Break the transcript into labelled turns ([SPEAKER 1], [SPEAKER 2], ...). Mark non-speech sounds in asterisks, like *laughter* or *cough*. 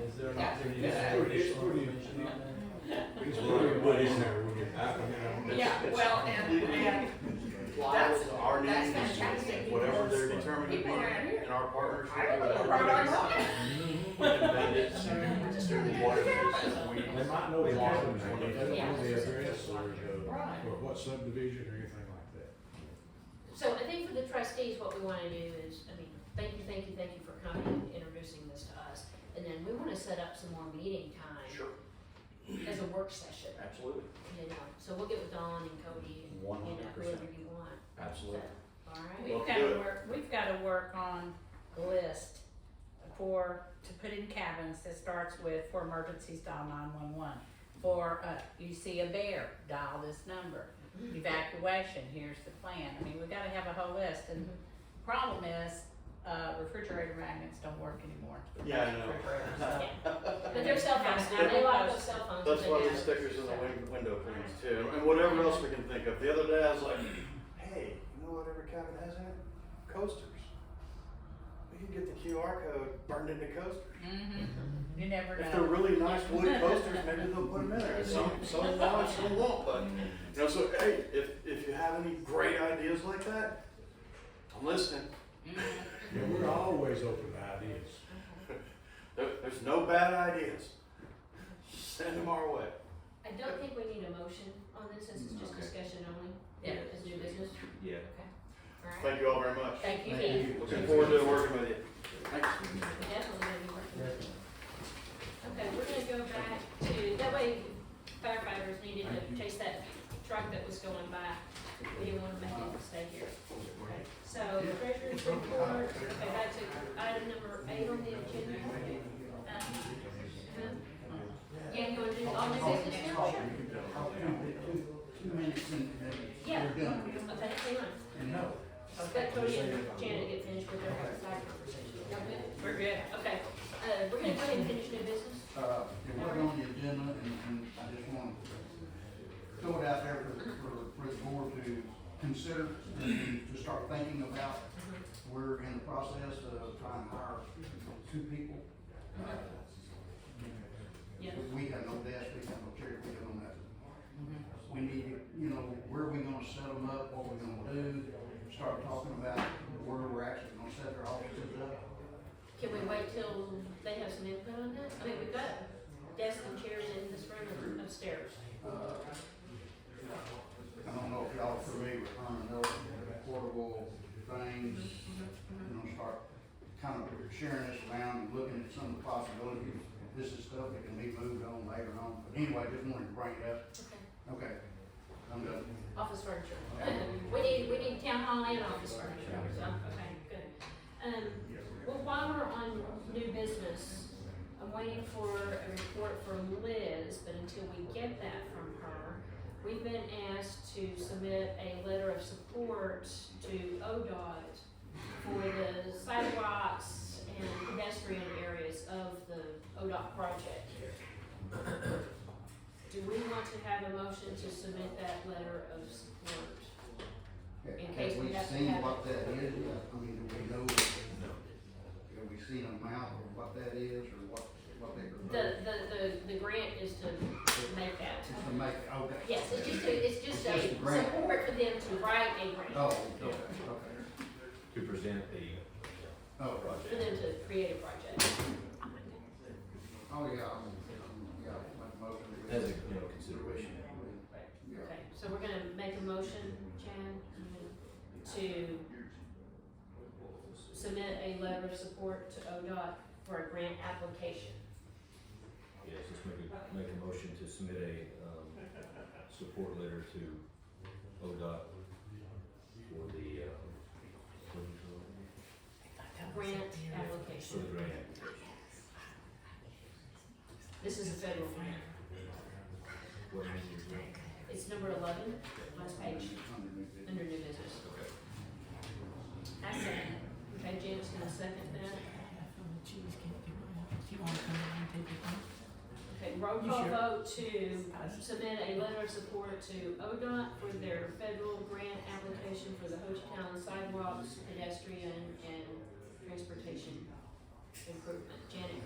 [SPEAKER 1] is there an
[SPEAKER 2] Yeah.
[SPEAKER 1] opportunity?
[SPEAKER 2] Yeah.
[SPEAKER 1] to put
[SPEAKER 3] It's
[SPEAKER 1] additional
[SPEAKER 3] pretty-
[SPEAKER 1] information on there?
[SPEAKER 3] It's really what is there when you happen to.
[SPEAKER 4] Yeah, well, and, and
[SPEAKER 2] That's,
[SPEAKER 5] Our needs,
[SPEAKER 2] that's fantastic.
[SPEAKER 5] whatever they're determined to
[SPEAKER 4] People around
[SPEAKER 5] be,
[SPEAKER 4] here.
[SPEAKER 5] in our
[SPEAKER 4] I
[SPEAKER 5] partnership
[SPEAKER 4] don't know
[SPEAKER 5] with
[SPEAKER 4] where I'm
[SPEAKER 5] our.
[SPEAKER 4] going.
[SPEAKER 5] Amendments,
[SPEAKER 4] I just really don't
[SPEAKER 5] water
[SPEAKER 4] care.
[SPEAKER 5] uses, we.
[SPEAKER 1] They might know the
[SPEAKER 5] Water
[SPEAKER 1] hazards.
[SPEAKER 5] when
[SPEAKER 3] They
[SPEAKER 5] it-
[SPEAKER 3] don't
[SPEAKER 4] Yeah.
[SPEAKER 3] know the address or, uh,
[SPEAKER 4] Right.
[SPEAKER 3] or what subdivision or anything like that.
[SPEAKER 6] So I think for the trustees, what we wanna do is, I mean, thank you, thank you, thank you for coming and introducing this to us. And then we wanna set up some more meeting time
[SPEAKER 5] Sure,
[SPEAKER 6] as a work session,
[SPEAKER 5] absolutely,
[SPEAKER 6] you know, so we'll get with Dawn and Cody and,
[SPEAKER 5] one
[SPEAKER 6] you know,
[SPEAKER 5] hundred percent,
[SPEAKER 6] whoever you want,
[SPEAKER 5] absolutely. *laughs*
[SPEAKER 6] alright?
[SPEAKER 4] We've gotta work, we've gotta work on a list for, to put in cabins that starts with, for emergencies, dial nine-one-one. For, uh, you see a bear, dial this number. Evacuation, here's the plan. I mean, we gotta have a whole list and problem is, uh, refrigerator magnets don't work anymore.
[SPEAKER 5] Yeah, I know.
[SPEAKER 4] Refrigerators, so. *laughs*
[SPEAKER 6] But their cell phones, now they lock those cell phones.
[SPEAKER 5] That's
[SPEAKER 6] when
[SPEAKER 5] why
[SPEAKER 6] they
[SPEAKER 5] the
[SPEAKER 6] have-
[SPEAKER 5] stickers in the win- window things too, and whatever else we can think of. The other day I was like, hey, you know what every cabin has in it? Coasters. We can get the QR code burned into coasters.
[SPEAKER 4] Mhm. You never
[SPEAKER 5] If they're
[SPEAKER 4] know.
[SPEAKER 5] really nice wood coasters, maybe they'll put them in there. Some, some will and some won't, but, you know, so, hey, if, if you have any great ideas like that, I'm listening.
[SPEAKER 4] Mhm.
[SPEAKER 3] Yeah, we're always open to ideas.
[SPEAKER 5] There, there's no bad ideas. Send them our way.
[SPEAKER 6] I don't think we need a motion on this, since it's just
[SPEAKER 7] Okay.
[SPEAKER 6] discussion only,
[SPEAKER 4] Yeah.
[SPEAKER 6] as new business,
[SPEAKER 7] Yeah.
[SPEAKER 6] alright?
[SPEAKER 5] Thank you all very much.
[SPEAKER 6] Thank you,
[SPEAKER 1] Thank
[SPEAKER 6] Keith.
[SPEAKER 5] Looking forward to working with you.
[SPEAKER 6] definitely gonna be working with you. Okay, we're gonna go back to, that way firefighters needed to chase that truck that was going by, we didn't wanna make it stay here. Okay, So, treasurer's report, okay, back to item number eight on the agenda. Uh, Yeah, you wanna do all new business now, sure?
[SPEAKER 8] Two minutes and and
[SPEAKER 6] Yeah.
[SPEAKER 8] we're done.
[SPEAKER 6] Okay, hang on.
[SPEAKER 8] And no,
[SPEAKER 6] Let Cody and Janet get finished with their side conversation. Y'all good? We're good. Okay, uh, we're gonna go ahead and finish new business.
[SPEAKER 8] uh, it wasn't on the agenda and, and I just want to throw it out there for, for, for the board to consider and to start thinking about. We're in the process of trying to hire two people.
[SPEAKER 6] Uh-huh. Yeah.
[SPEAKER 8] We have no desk, we have no chair, we have no nothing. We need, to, you know, where we gonna set them up, what we gonna do, start talking about where we're actually gonna set their offices up.
[SPEAKER 6] Can we wait till they have some input on that? I mean, we've got desks and chairs in this room and upstairs.
[SPEAKER 8] I don't know if y'all are familiar with Herman Miller, portable things, you know, start kind of sharing this around and looking at some of the possibilities. This is stuff that can be moved on later on, but anyway, just wanted to bring it up.
[SPEAKER 6] Okay.
[SPEAKER 8] Okay, I'm done.
[SPEAKER 6] Office furniture. We need, we need town hall and office furniture, so, okay, good. Um, well, while we're on new business, I'm waiting for a report from Liz, but until we get that from her, we've been asked to submit a letter of support to ODOT for the sidewalks and pedestrian areas of the ODOT project. Do we want to have a motion to submit that letter of support? In case we have to
[SPEAKER 8] seen
[SPEAKER 6] have-
[SPEAKER 8] what that is? I mean, do we know? Have we seen a amount of what that is or what, what they
[SPEAKER 6] The,
[SPEAKER 8] propose?
[SPEAKER 6] the, the, the grant is to make that.
[SPEAKER 8] Just to make, okay.
[SPEAKER 6] Yes, it's just a, it's just a
[SPEAKER 8] Just a grant.
[SPEAKER 6] support for them to write a grant,
[SPEAKER 8] Oh, okay, okay.
[SPEAKER 7] To present the,
[SPEAKER 8] Oh, right.
[SPEAKER 6] for them to create a project.
[SPEAKER 8] Oh, yeah, I'm, I'm- yeah, my motion. is-
[SPEAKER 7] as a, you know, consideration.
[SPEAKER 8] Yeah.
[SPEAKER 6] Okay, so we're gonna make a motion, Chad, to submit a letter of support to ODOT for a grant application.
[SPEAKER 7] Yes, just make a, make a motion to submit a, um, support letter to ODOT for the, um, what do you call it?
[SPEAKER 6] Grant
[SPEAKER 7] for
[SPEAKER 6] application.
[SPEAKER 7] the grant.
[SPEAKER 6] This is a federal grant.
[SPEAKER 7] What name is it?
[SPEAKER 6] It's number eleven, last page, under new business.
[SPEAKER 7] Okay.
[SPEAKER 6] I second. it. Okay, Janet's gonna second that. Okay, roll call vote to submit a letter of support to ODOT for their federal grant application for the Ho Chi Town sidewalks, pedestrian, and transportation improvement. Janet Craig